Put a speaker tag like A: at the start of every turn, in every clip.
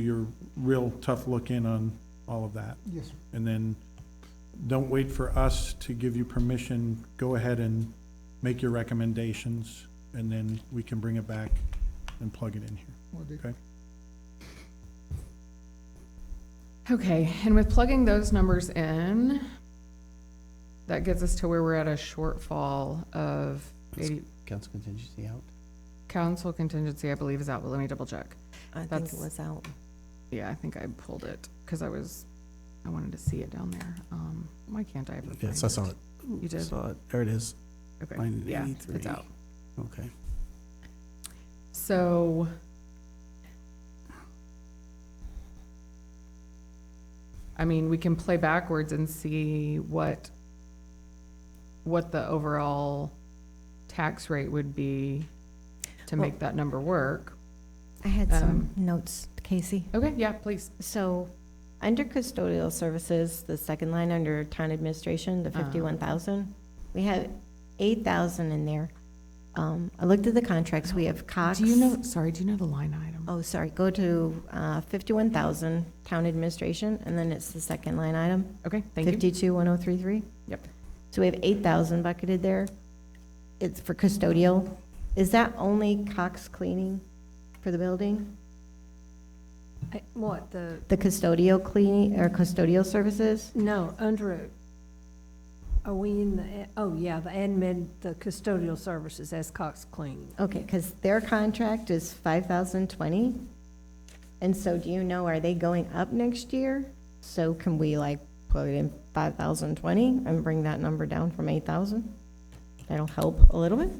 A: your real tough look in on all of that.
B: Yes, sir.
A: And then don't wait for us to give you permission. Go ahead and make your recommendations and then we can bring it back and plug it in here.
B: Will do.
C: Okay, and with plugging those numbers in, that gets us to where we're at a shortfall of eighty,
D: Council contingency out?
C: council contingency, I believe, is out, but let me double check.
E: I think
C: That's-
E: it was out.
C: Yeah, I think I pulled it, because I was, I wanted to see it down there. Um, why can't I ever
D: Yes,
C: find
D: I
C: it?
D: saw it.
C: You did?
D: Saw it, there it is,
C: Okay,
D: line
C: yeah, it's
D: 83.
C: out.
D: okay.
C: So. I mean, we can play backwards and see what, what the overall tax rate would be to make that number work.
E: I had some
C: Um,
E: notes, Casey.
C: Okay, yeah, please.
E: So, under custodial services, the second line under town administration, the
C: Uh-huh.
E: fifty-one thousand, we have eight thousand in there. Um, I looked at the contracts, we have Cox.
C: Do you know, sorry, do you know the line item?
E: Oh, sorry, go to, uh, fifty-one thousand, town administration, and then it's the second line item,
C: Okay, thank you.
E: fifty-two, one oh three three.
C: Yep.
E: So we have eight thousand bucketed there. It's for custodial. Is that only Cox cleaning for the building?
F: I- What, the,
E: The custodial cleaning, or custodial services?
F: no, under, it. are we in the, a- oh, yeah, the admin, the custodial services, that's Cox Clean.
E: Okay, because their contract is five thousand twenty. And so do you know, are they going up next year? So can we like plug it in five thousand twenty and bring that number down from eight thousand? That'll help a little bit?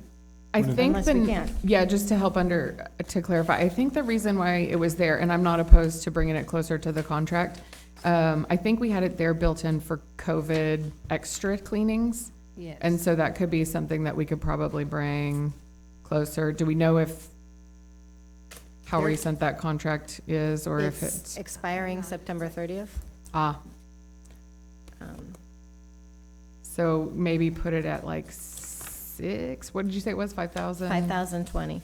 C: I think
E: Unless we
C: the,
E: can't.
C: yeah, just to help under, to clarify, I think the reason why it was there, and I'm not opposed to bringing it closer to the contract, um, I think we had it there built in for COVID extra cleanings.
F: Yes.
C: And so that could be something that we could probably bring closer. Do we know if, how
E: There-
C: recent that contract is, or if it's,
E: expiring September thirtieth.
C: ah,
E: Um,
C: so maybe put it at like six? What did you say it was, five thousand?
E: Five thousand twenty.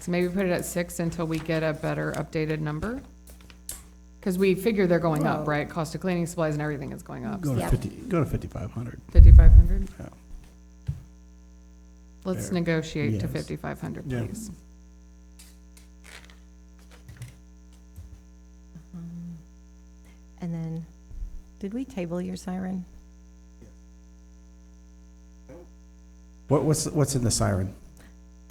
C: So maybe put it at six until we get a better updated number? Because we figure they're going up, right? Cost of cleaning supplies and everything is going up.
D: Go to
E: Yeah.
D: fifty, go to fifty-five hundred.
C: Fifty-five hundred?
D: Yeah.
C: Let's
D: Fair.
C: negotiate to
D: Yes.
C: fifty-five hundred,
A: Yeah.
C: please.
E: And then, did we table your siren?
D: What, what's, what's in the siren?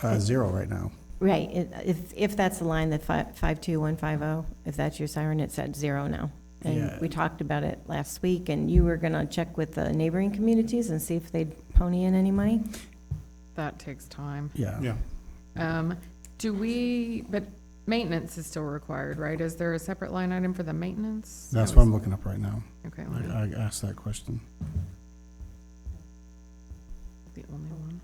D: Uh, zero right now.
E: Right, it- if, if that's the line, that fi- 52150, oh, if that's your siren, it's at zero now.
D: Yeah.
E: And we talked about it last week, and you were going to check with the neighboring communities and see if they'd pony in any money?
C: That takes time.
D: Yeah.
A: Yeah.
C: Um, do we, but maintenance is still required, right? Is there a separate line item for the maintenance?
D: That's what I'm looking up right now.
C: Okay,
D: I,
C: well,
D: I asked that question.
C: the only one.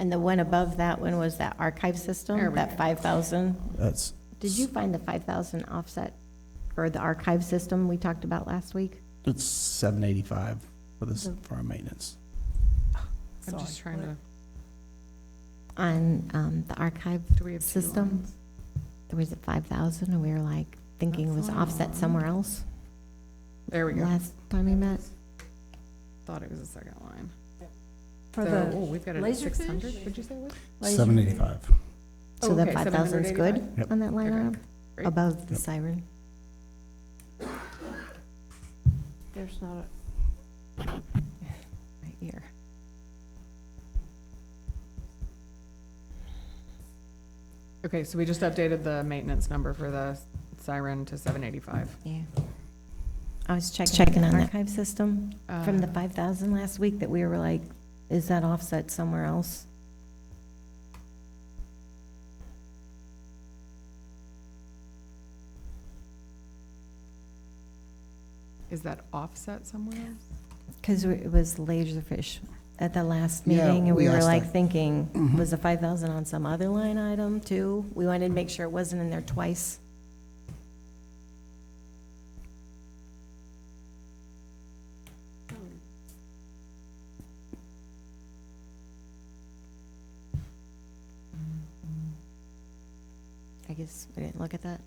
E: And the one above that one was that archive
C: There
E: system,
C: we
E: that
C: go.
E: 5,000.
D: That's,
E: Did you find the 5,000 offset for the archive system we talked about last week?
D: it's seven eighty-five for this, for our maintenance.
C: I'm just trying to,
E: On um, the archive,
C: do we have two
E: System.
C: lines?
E: there was a 5,000, and we were like thinking it was offset somewhere else
C: There we go.
E: last time we met?
C: Thought it was a second line.
F: For
C: So,
F: the
C: oh, we've got it at
F: laser fish?
C: six hundred, would you say it was?
F: laser-
D: Seven eighty-five.
E: So the
C: Oh, Okay,
E: 5,000 is good
C: 785.
D: Yep.
E: on that line
C: Okay,
E: item,
C: great.
E: above the
D: Yep.
E: siren?
F: There's not a.
E: Right here.
C: Okay, so we just updated the maintenance number for the siren to seven eighty-five.
E: Yeah. I was checking on the archive system from the
C: Uh,
E: 5,000 last week that we were like, is that offset somewhere else?
C: Um, Is that offset somewhere else?
E: Because it was laserfish at the last
D: Yeah,
E: meeting, and
D: we
E: we were
D: asked Mm-hmm.
E: like
D: that.
E: thinking, was the 5,000 on some other line item too? We wanted to make sure it wasn't in there twice. I guess we didn't look at that.